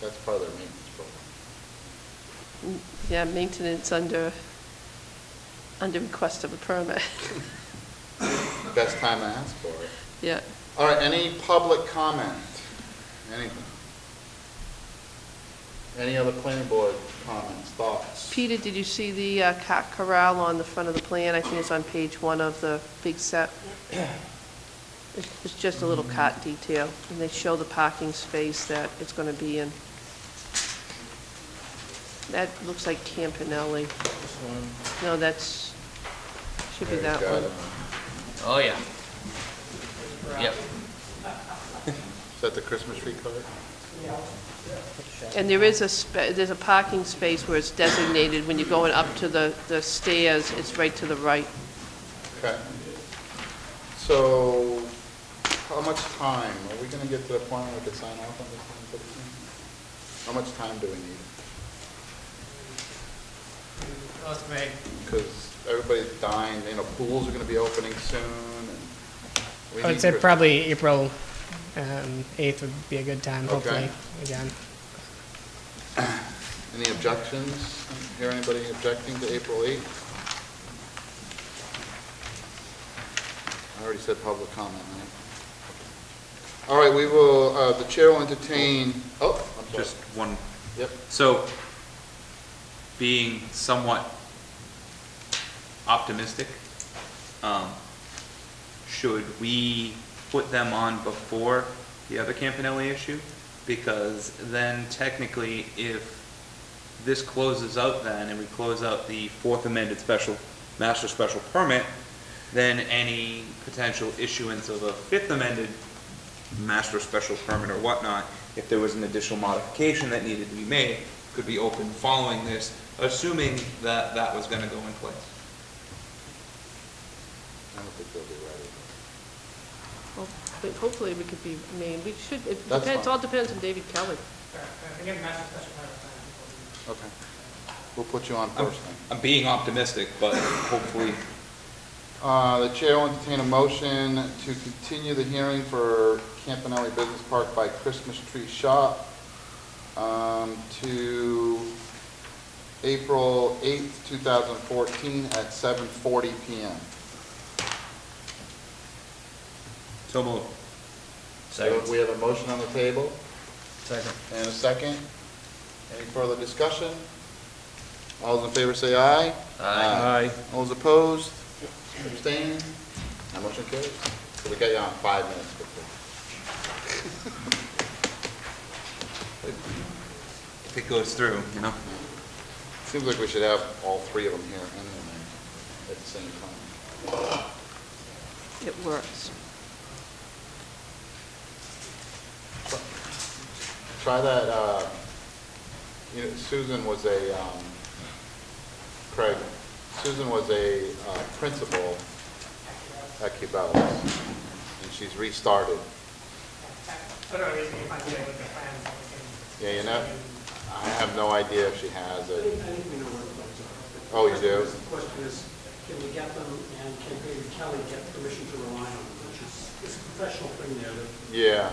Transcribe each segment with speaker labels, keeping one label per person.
Speaker 1: That's part of their maintenance program.
Speaker 2: Yeah, maintenance under, under request of a permit.
Speaker 1: Best time to ask for it.
Speaker 2: Yeah.
Speaker 1: All right, any public comment? Anything? Any other planning board comments, thoughts?
Speaker 2: Peter, did you see the uh, cat corral on the front of the plan? I think it's on page one of the big set. It's it's just a little cat detail, and they show the parking space that it's going to be in. That looks like Campanelli. No, that's, should be that
Speaker 1: Got
Speaker 2: one.
Speaker 1: it.
Speaker 3: Oh, yeah. Yep.
Speaker 1: Is that the Christmas tree card?
Speaker 2: And there is a, spa- there's a parking space where it's designated, when you're going up to the, the stairs, it's right to the right.
Speaker 1: Okay. So, how much time? Are we gonna get to the point where we could sign off on this thing for the team? How much time do we need?
Speaker 4: That's me.
Speaker 1: Because everybody's dying, you know, pools are gonna be opening soon, and we
Speaker 4: I
Speaker 1: need
Speaker 4: would say
Speaker 1: Chris-
Speaker 4: probably April um, 8th would be a good time,
Speaker 1: Okay.
Speaker 4: hopefully, again.
Speaker 1: Any objections? Hear anybody objecting to April eighth? I already said public comment, right? All right, we will, uh, the chair will entertain, oh, I'm sorry.
Speaker 5: Just one,
Speaker 1: Yep,
Speaker 5: so, being somewhat optimistic, um, should we put them on before the other Campanelli issue? Because then technically, if this closes out then, and we close out the fourth amended special, master special permit, then any potential issuance of a fifth amended master special permit or whatnot, if there was an additional modification that needed to be made, could be open following this, assuming that that was gonna go in place.
Speaker 1: I don't think they'll be ready.
Speaker 2: Well, but Hopefully, we could be, I mean, we should, it
Speaker 1: That's
Speaker 2: depends,
Speaker 1: fine.
Speaker 2: all depends on David Kelly.
Speaker 1: Okay. We'll put you on first then.
Speaker 5: I'm being optimistic, but hopefully,
Speaker 1: Uh, The chair will entertain a motion to continue the hearing for Campanelli Business Park by Christmas Tree Shop um, to April 8th, 2014 at 7:40 PM.
Speaker 5: so moved.
Speaker 1: So We have a motion on the table
Speaker 3: Second.
Speaker 1: and a second. Any further discussion? All those in favor say aye.
Speaker 3: Aye.
Speaker 1: All those opposed, abstained, that motion carries. So we got you on five minutes before.
Speaker 5: If it goes through, you know?
Speaker 1: Seems like we should have all three of them here and then at the same time.
Speaker 2: It works.
Speaker 1: Try that, uh, you know, Susan was a, um, Craig, Susan was a uh, principal at Cabela's, and she's restarted. Yeah, you know, I have no idea if she has
Speaker 6: I
Speaker 1: it.
Speaker 6: think we know where the ones are.
Speaker 1: Oh, you do?
Speaker 6: The question is, can we get them, and can David Kelly get permission to rely on them, which is, it's a professional thing there, that
Speaker 1: Yeah,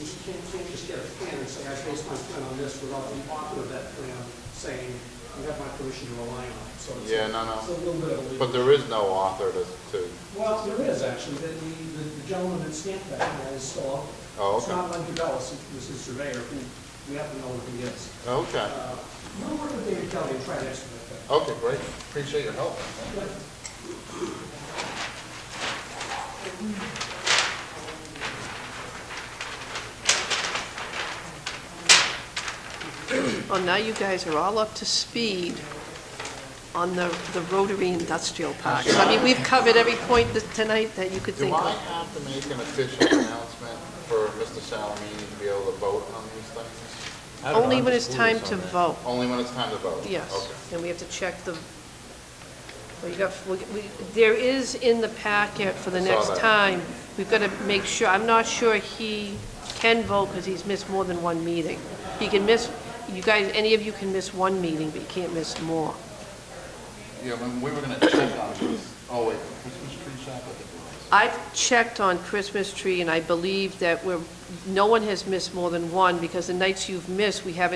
Speaker 6: you can't, can't just get a plan and say, I based my plan on this, without the author of that plan saying, you have my permission to rely on it, so it's.
Speaker 1: Yeah, no, no.
Speaker 6: It's a little bit of a. leap.
Speaker 1: but there is no author to, to,
Speaker 6: Well, there is actually, the, the the gentleman that stamped that plan is still out. there.
Speaker 1: Oh,
Speaker 6: It's
Speaker 1: okay.
Speaker 6: not Len Cabellas, it was his surveyor, who, we have to know who he is.
Speaker 1: okay,
Speaker 6: Uh, We'll work with David Kelly and try to expedite that.
Speaker 1: okay, great, appreciate your help.
Speaker 2: Well, now you guys are all up to speed on the, the Rotary Industrial Park. I mean, we've covered every point that, tonight that you could
Speaker 1: Do
Speaker 2: think
Speaker 1: I
Speaker 2: of.
Speaker 1: have to make an official announcement for Mr. Salamini to be able to vote on these things?
Speaker 2: Only when it's time to vote,
Speaker 1: Only when it's time to vote?
Speaker 2: yes.
Speaker 1: Okay.
Speaker 2: And we have to check the, well, you got, we, we- there is in the packet for the
Speaker 1: Saw
Speaker 2: next
Speaker 1: that.
Speaker 2: time. We've got to make sure, I'm not sure he can vote because he's missed more than one meeting. He can miss, you guys, any of you can miss one meeting, but you can't miss more.
Speaker 1: Yeah, when we were gonna check on this, oh wait, Christmas tree shop, I think it
Speaker 2: I've checked on Christmas tree, and I believe that we're, no one has missed more than one, because the nights you've missed, we haven't